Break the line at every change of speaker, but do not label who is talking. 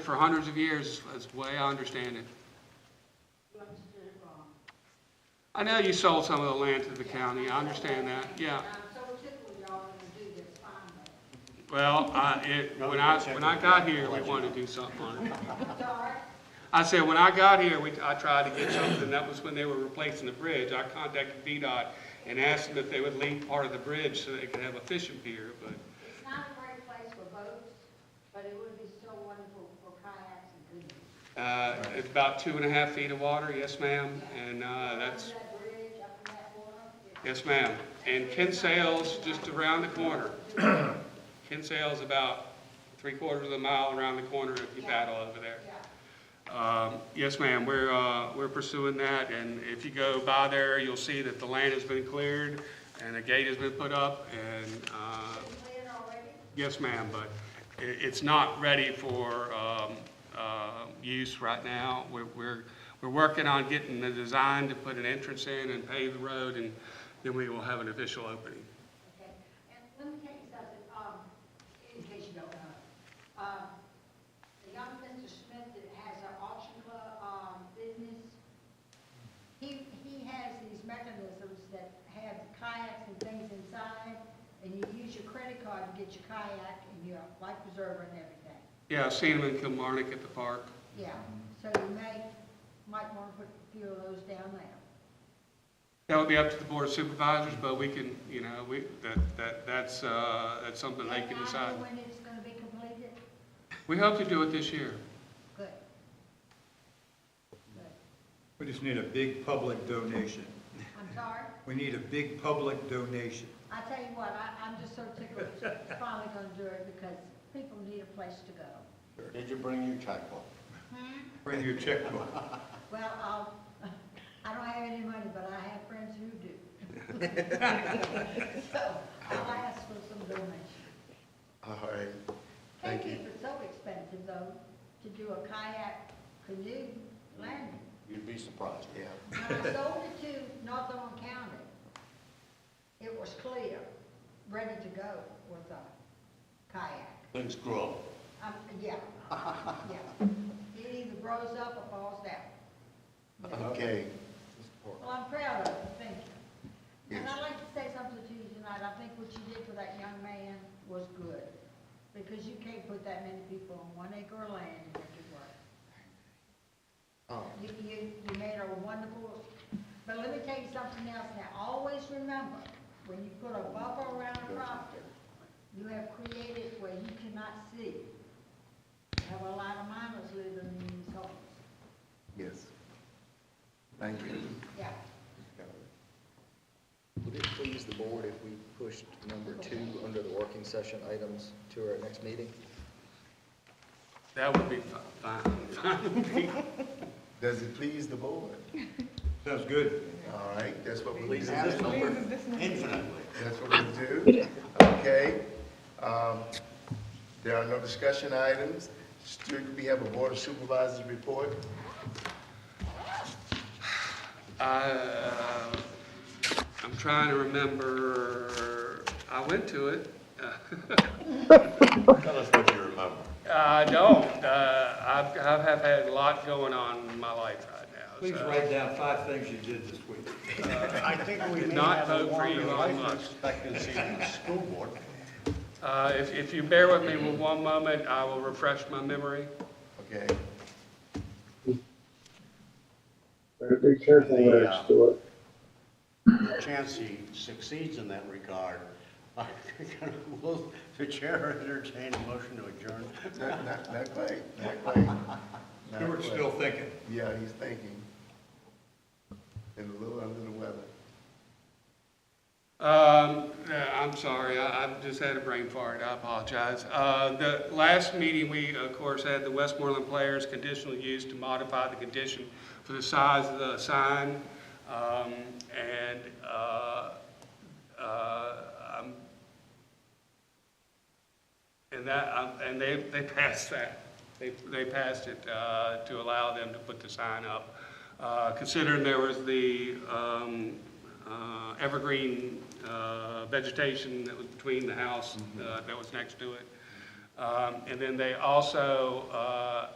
for hundreds of years, that's the way I understand it. I know you sold some of the land to the county, I understand that, yeah.
I'm Um, so tickled y'all gonna do this finally.
Well, I, it, when I, when I got here, we wanted to do something on it.
Sorry,
I said, when I got here, we, I tried to get something, that was when they were replacing the bridge. I contacted VDOT and asked them if they would leave part of the bridge so they could have a fishing pier, but
it's not a great place for boats, but it would be so wonderful for kayaks and canoes.
Uh, It's about two and a half feet of water, yes, ma'am, and uh,
Under
that's, Uh,
that bridge, up in that corner, it's
yes, ma'am. And Kinsale's just around the corner. Kinsale's about three quarters of a mile around the corner if you paddle over there. Um, Yes, ma'am, we're, uh, we're pursuing that, and if you go by there, you'll see that the land has been cleared, and a gate has been put up, and uh,
been cleared already.
Yes, ma'am, but i it's not ready for, um, uh, use right now. We're, we're, we're working on getting the design to put an entrance in and pave the road, and then we will have an official opening.
Okay, and let me tell you something, um, in case you don't know. Um, the young Mr. Smith that has an auction club, um, business, he, he has these mechanisms that have kayaks and things inside, and you use your credit card to get your kayak and your life preserver and everything.
Yeah, I've seen them in Kilmarnock at the park.
Yeah, so you may, might wanna put a few of those down there.
That would be up to the board of supervisors, but we can, you know, we, that, that, that's, uh, that's something they
And I
can
know
decide.
When it's gonna be completed,
We hope to do it this year.
good. Good,
We just need a big public donation.
I'm sorry.
We need a big public donation.
I tell you what, I, I'm just so tickled, it's finally gonna do it because people need a place to go.
Did you bring your checkbook?
Bring your checkbook.
Well, I'll, I don't have any money, but I have friends who do. So I'll ask for some donation.
All right, thank you.
Thank you, it's so expensive though, to do a kayak canoe landing.
You'd be surprised, yeah.
When I sold it to Northumberland County, it was clear, ready to go with a kayak.
Things grow.
Um, yeah, yeah. It either grows up or falls down.
Okay.
Well, I'm proud of it, thank you. And I'd like to say something to you tonight, I think what you did for that young man was good, because you can't put that many people on one acre of land and make it work.
Oh,
You, you, you made a wonderful, but let me tell you something else now, always remember, when you put a buffer around a property, you have created where you cannot see. You have a lot of minors living in these homes,
Yes. Thank you.
yeah.
Would it please the board if we pushed number two under the working session items to our next meeting?
That would be fi- fine.
Does it please the board?
Sounds good.
All right, that's what we
Pleases
have.
this number.
Infinitely. That's what we do. Okay. Um, There are no discussion items. Student, we have a board of supervisors report.
Uh, I'm trying to remember, I went to it.
Tell us what you remember.
I don't. Uh, I've, I have had a lot going on in my life right now.
Please
so
write down five things you did this week.
I think we
Did
may
not
have
vote
a
for
longer
Elon
life
Musk.
expectancy than the school board.
Uh, if, if you bear with me with one moment, I will refresh my memory.
Okay.
Better Be careful there,
Yeah.
Stuart.
The chance he succeeds in that regard, I think will- the chair entertain a motion to adjourn.
Not, not, not quite, not quite. Not
Stuart's
quite.
still thinking.
Yeah, he's thinking. And a little under the weather.
Um, yeah, I'm sorry, I, I've just had a brain fart, I apologize. Uh, the last meeting, we, of course, had the Westmoreland Players conditional use to modify the condition for the size of the sign. Um, and, uh, uh, I'm, and that, um, and they, they passed that. They, they passed it uh, to allow them to put the sign up. Uh, Considering there was the um, uh, evergreen uh, vegetation that was between the house uh, that was next to it. Um, And then they also uh,